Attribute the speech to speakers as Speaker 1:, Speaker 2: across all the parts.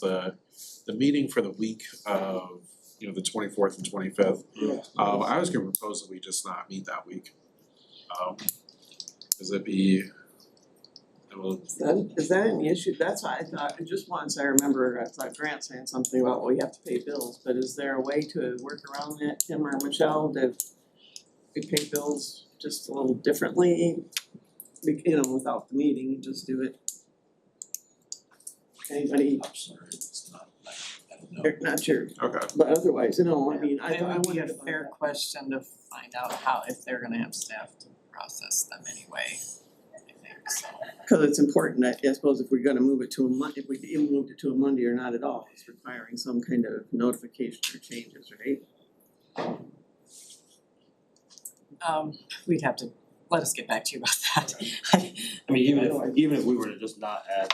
Speaker 1: the the meeting for the week of, you know, the twenty fourth and twenty fifth.
Speaker 2: Yeah.
Speaker 1: Um I was gonna propose that we just not meet that week. Um, cause it'd be, it will,
Speaker 2: Is that, is that an issue? That's why I thought, just once I remember, I thought Grant saying something about, well, you have to pay bills, but is there a way to work around that, Tim or Michelle, that we pay bills just a little differently? We- You know, without the meeting, you just do it. Anybody,
Speaker 3: I'm sorry, it's not, like, I don't know.
Speaker 2: you're not sure,
Speaker 1: okay,
Speaker 2: but otherwise, you know, I mean, I
Speaker 4: It
Speaker 2: I
Speaker 4: would be a
Speaker 2: wouldn't.
Speaker 4: fair question to find out how, if they're gonna have staff to process them anyway, I think, so.
Speaker 2: Cause it's important, I I suppose if we're gonna move it to a Mon- if we even moved it to a Monday or not at all, it's requiring some kind of notification or changes, right?
Speaker 4: Um, we'd have to, let us get back to you about that. I
Speaker 5: I mean, even
Speaker 2: Otherwise-
Speaker 5: if, even if we were to just not add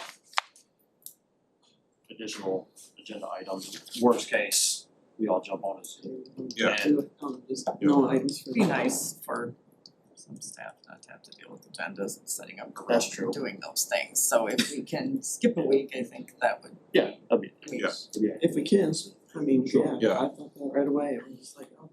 Speaker 5: additional agenda items, worst case, we all jump on it.
Speaker 1: Yeah.
Speaker 5: And
Speaker 2: Um, just no items for.
Speaker 4: It'd be nice for some staff not to have to deal with agendas and setting up
Speaker 5: That's
Speaker 4: groups
Speaker 5: true.
Speaker 4: and doing those things, so if we can skip a week, I think that would
Speaker 5: yeah, that'd be,
Speaker 4: be
Speaker 1: Yeah.
Speaker 5: that'd be it.
Speaker 2: If we can, I mean, yeah,
Speaker 5: Sure.
Speaker 1: Yeah.
Speaker 2: I thought that right away, it was just like, oh.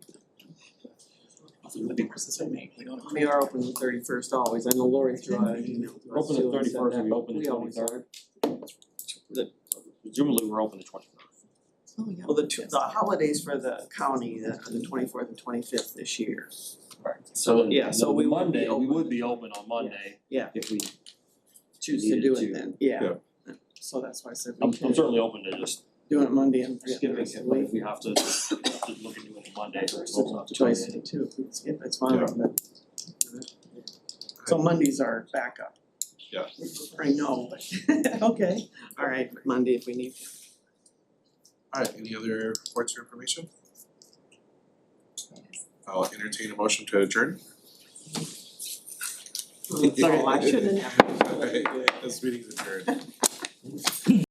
Speaker 4: the difference that we make, we don't.
Speaker 2: We are open the thirty first always, I know Lori threw out an email to
Speaker 5: We're
Speaker 2: us
Speaker 5: open the
Speaker 2: too and said
Speaker 5: 31st and
Speaker 2: that,
Speaker 5: we open the
Speaker 2: but always
Speaker 5: 23rd.
Speaker 2: are.
Speaker 5: Presumably, we're open the twenty third.
Speaker 4: Oh, yeah.
Speaker 2: Well, the two, the holidays for the county, the the twenty fourth and twenty fifth this year,
Speaker 5: So then,
Speaker 2: yeah, so
Speaker 5: then
Speaker 2: we would be
Speaker 5: Monday, we
Speaker 2: open.
Speaker 5: would be open on Monday.
Speaker 2: Yeah.
Speaker 5: If we,
Speaker 2: choose to
Speaker 5: Needed
Speaker 2: do
Speaker 5: to.
Speaker 2: it then, yeah.
Speaker 1: Yeah.
Speaker 2: So that's why I said
Speaker 5: I'm,
Speaker 2: we
Speaker 5: I'm
Speaker 2: can
Speaker 5: certainly open to just
Speaker 2: do it Monday and forget the
Speaker 5: skipping
Speaker 2: rest of
Speaker 5: it,
Speaker 2: the
Speaker 5: but
Speaker 2: week.
Speaker 5: if we have to, have to look into it Monday, we'll have to.
Speaker 2: Choice too, if we skip, it's fine,
Speaker 1: Yeah.
Speaker 2: but. So Mondays are backup.
Speaker 1: Yeah.
Speaker 2: I know, but, okay, all right, Monday if we need to.
Speaker 1: alright, any other reports or information? I'll entertain a motion to adjourn.
Speaker 2: Oh, I shouldn't have.
Speaker 1: This meeting's adjourned.